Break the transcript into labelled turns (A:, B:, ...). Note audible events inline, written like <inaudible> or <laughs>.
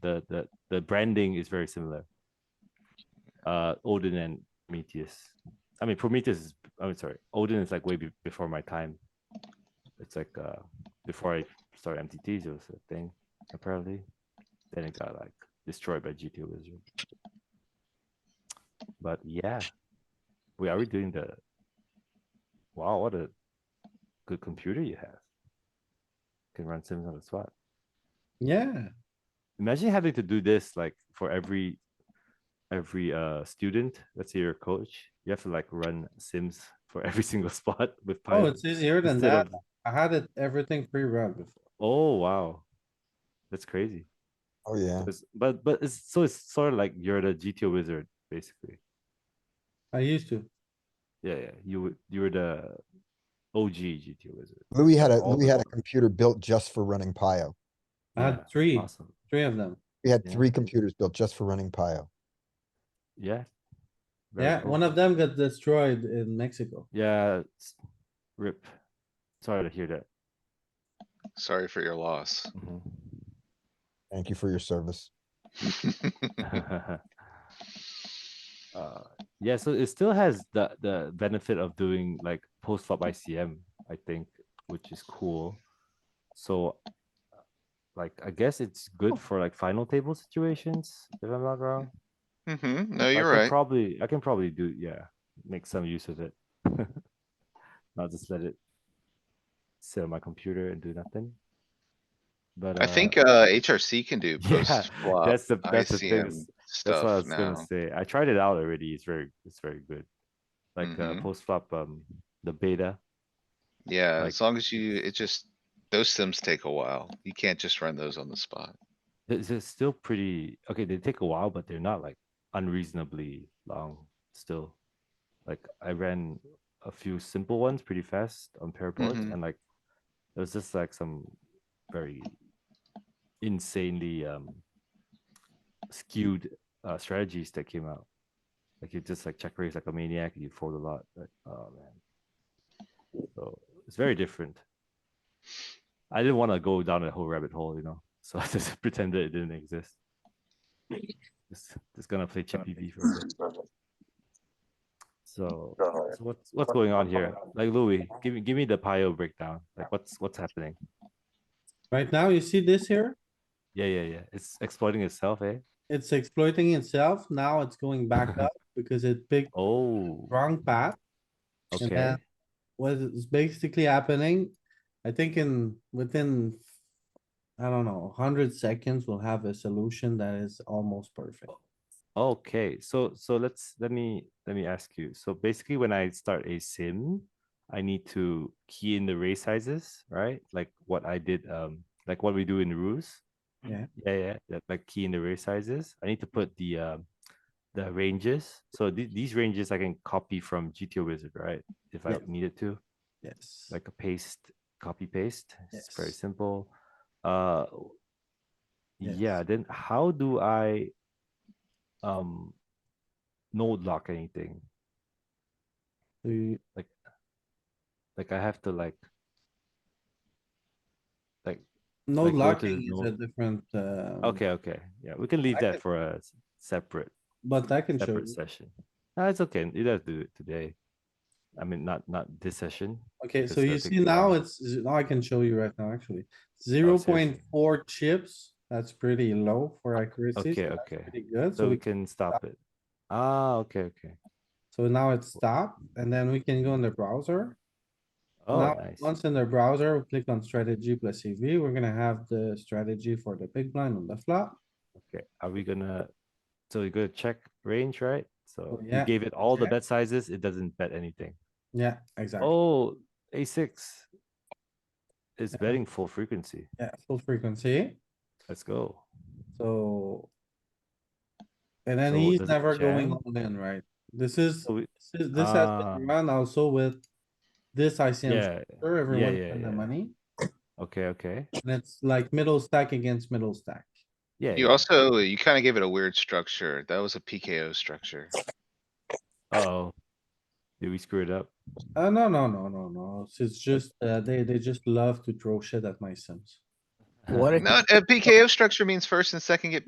A: the the the branding is very similar. Uh, Odin and Prometheus. I mean, Prometheus. Is, I'm sorry, Odin is like way be- before my time. It's like uh, before I started MTTs, it was a thing apparently. Then it got like destroyed by GTO Wizard. But yeah, we are we doing the. Wow, what a good computer you have. Can run sims on the spot.
B: Yeah,
A: Imagine having to do this like for every every uh student. Let's say you're a coach. You have to like run sims for every <laughs> single spot with
B: oh,
A: Python.
B: it's easier than
A: instead
B: that.
A: of-
B: I had it, everything pre-run before.
A: Oh wow. That's crazy.
C: Oh, yeah.
A: It's- But but it's so it's sort of like you're the GTO wizard, basically.
B: I used to.
A: Yeah, yeah. You would you were the OG GTO wizard.
C: Louis had a,
A: All
C: Louis had a
A: the-
C: computer built just for running Pio.
B: I had
A: Yeah,
B: three,
A: Awesome.
B: three of them.
C: We had
A: Yeah.
C: three computers built just for running Pio.
A: Yeah. Very
B: Yeah,
A: cool.
B: one of them got destroyed in Mexico.
A: Yeah, it's- rip. Sorry to hear that.
D: Sorry for your loss.
A: Mm-hmm.
C: Thank you for your service.
A: Mhm. <laughs> Uh, yeah, so it still has the the benefit of doing like post flop ICM, I think, which is cool. So, uh, like, I guess it's good for like final table situations, if I'm not wrong.
D: Mhm, no,
A: I
D: you're
A: could
D: right.
A: Probably, I can probably do, yeah, make some use of it. <laughs> Not just let it sit on my computer and do nothing. But
D: I
A: uh,
D: think, uh, HRC can do
A: <laughs> yeah,
D: post flop
A: that's the that's the thing.
D: ICM
A: is- That's what I was
D: stuff
A: gonna
D: now.
A: say. I tried it out already. It's very it's very good. Like uh,
D: Mhm.
A: post flop, um, the beta.
D: Yeah,
A: like-
D: as long as you, it just, those sims take a while. You can't just run those on the spot.
A: It's, it's still pretty okay. They take a while, but they're not like unreasonably long. Still, like I ran a few simple ones pretty fast on pair boards,
D: Mhm.
A: and like it was just like some very insanely um skewed uh, strategies that came out. Like you just like check raise like a maniac, you fold a lot. Like, oh man. So it's very different. I didn't want to go down a whole rabbit hole, you know. So <laughs> I just pretended it didn't exist. Just, just gonna play Chippy V for a bit. So, so what's what's going on here? Like Louis, give me give me the Pio breakdown. Like what's what's happening?
B: Right now, you see this here?
A: Yeah, yeah, yeah. It's exploiting itself, eh?
B: It's exploiting itself. Now it's going
A: <laughs>
B: back up because it picked
A: Oh,
B: wrong path. And
A: okay.
B: then What is basically happening, I think in, within, I don't know, hundred seconds, we'll have a solution that is almost perfect.
A: Oh. Okay, so so let's let me let me ask you. So basically, when I start a sim, I need to key in the ray sizes, right? Like what I did, um, like what we do in ruse.
B: Yeah.
A: Yeah, yeah. That, like key in the ray sizes. I need to put the um, the ranges. So the- these ranges I can copy from GTO Wizard, right? If I
B: Yes.
A: needed to,
B: Yes.
A: like a paste, copy paste. It's very
B: Yes.
A: simple. Uh, yeah.
B: Yes.
A: Then how do I um node lock anything?
B: So you-
A: Like I have to like
B: No
A: Like, go to
B: locking is
A: no-
B: a different, uh.
A: okay, okay, yeah. We can leave
B: I
A: that
B: can-
A: for a s- separate
B: But I can show
A: separate
B: you.
A: session. No, it's okay. You don't have to do it today. I mean, not not this session.
B: Okay, so
A: because I
B: you
A: think
B: see
A: the-
B: now it's, now I can show you right now, actually.
A: Oh,
B: Zero point four chips, that's pretty low for accuracy.
A: Okay,
B: so that's
A: okay.
B: Pretty good,
A: So
B: so
A: we
B: we,
A: can stop it. Ah, okay, okay.
B: so now it's stopped, and then we can go in the browser.
A: Oh,
B: Now,
A: nice.
B: Once in the browser, we click on strategy plus EV, we're gonna have the strategy for the big blind on the flop.
A: Okay, are we gonna, so we're gonna check range, right? So we
B: Oh, yeah,
A: gave it all the
B: check.
A: bet sizes, it doesn't bet anything.
B: Yeah, exactly.
A: Oh, a six. It's
B: Yeah.
A: betting full frequency.
B: Yeah, full frequency,
A: Let's go.
B: so. And then
A: So
B: he's
A: does it
B: never going
A: jam?
B: all in, right? This is,
A: So we,
B: this is- this has been
A: Ah.
B: run also with this ICM
A: yeah,
B: Sure, everyone
A: yeah,
B: spend
A: yeah.
B: the money,
A: okay, okay.
B: and it's like middle stack against middle stack.
A: Yeah.
D: You also, you kinda gave it a weird structure. That was a PKO
A: <laughs>
D: structure.
A: Oh, did we screw it up?
B: Uh, no, no, no, no, no, it's- it's just, uh, they, they just love to throw shit at my sims.
D: Not, a PKO structure means first and second get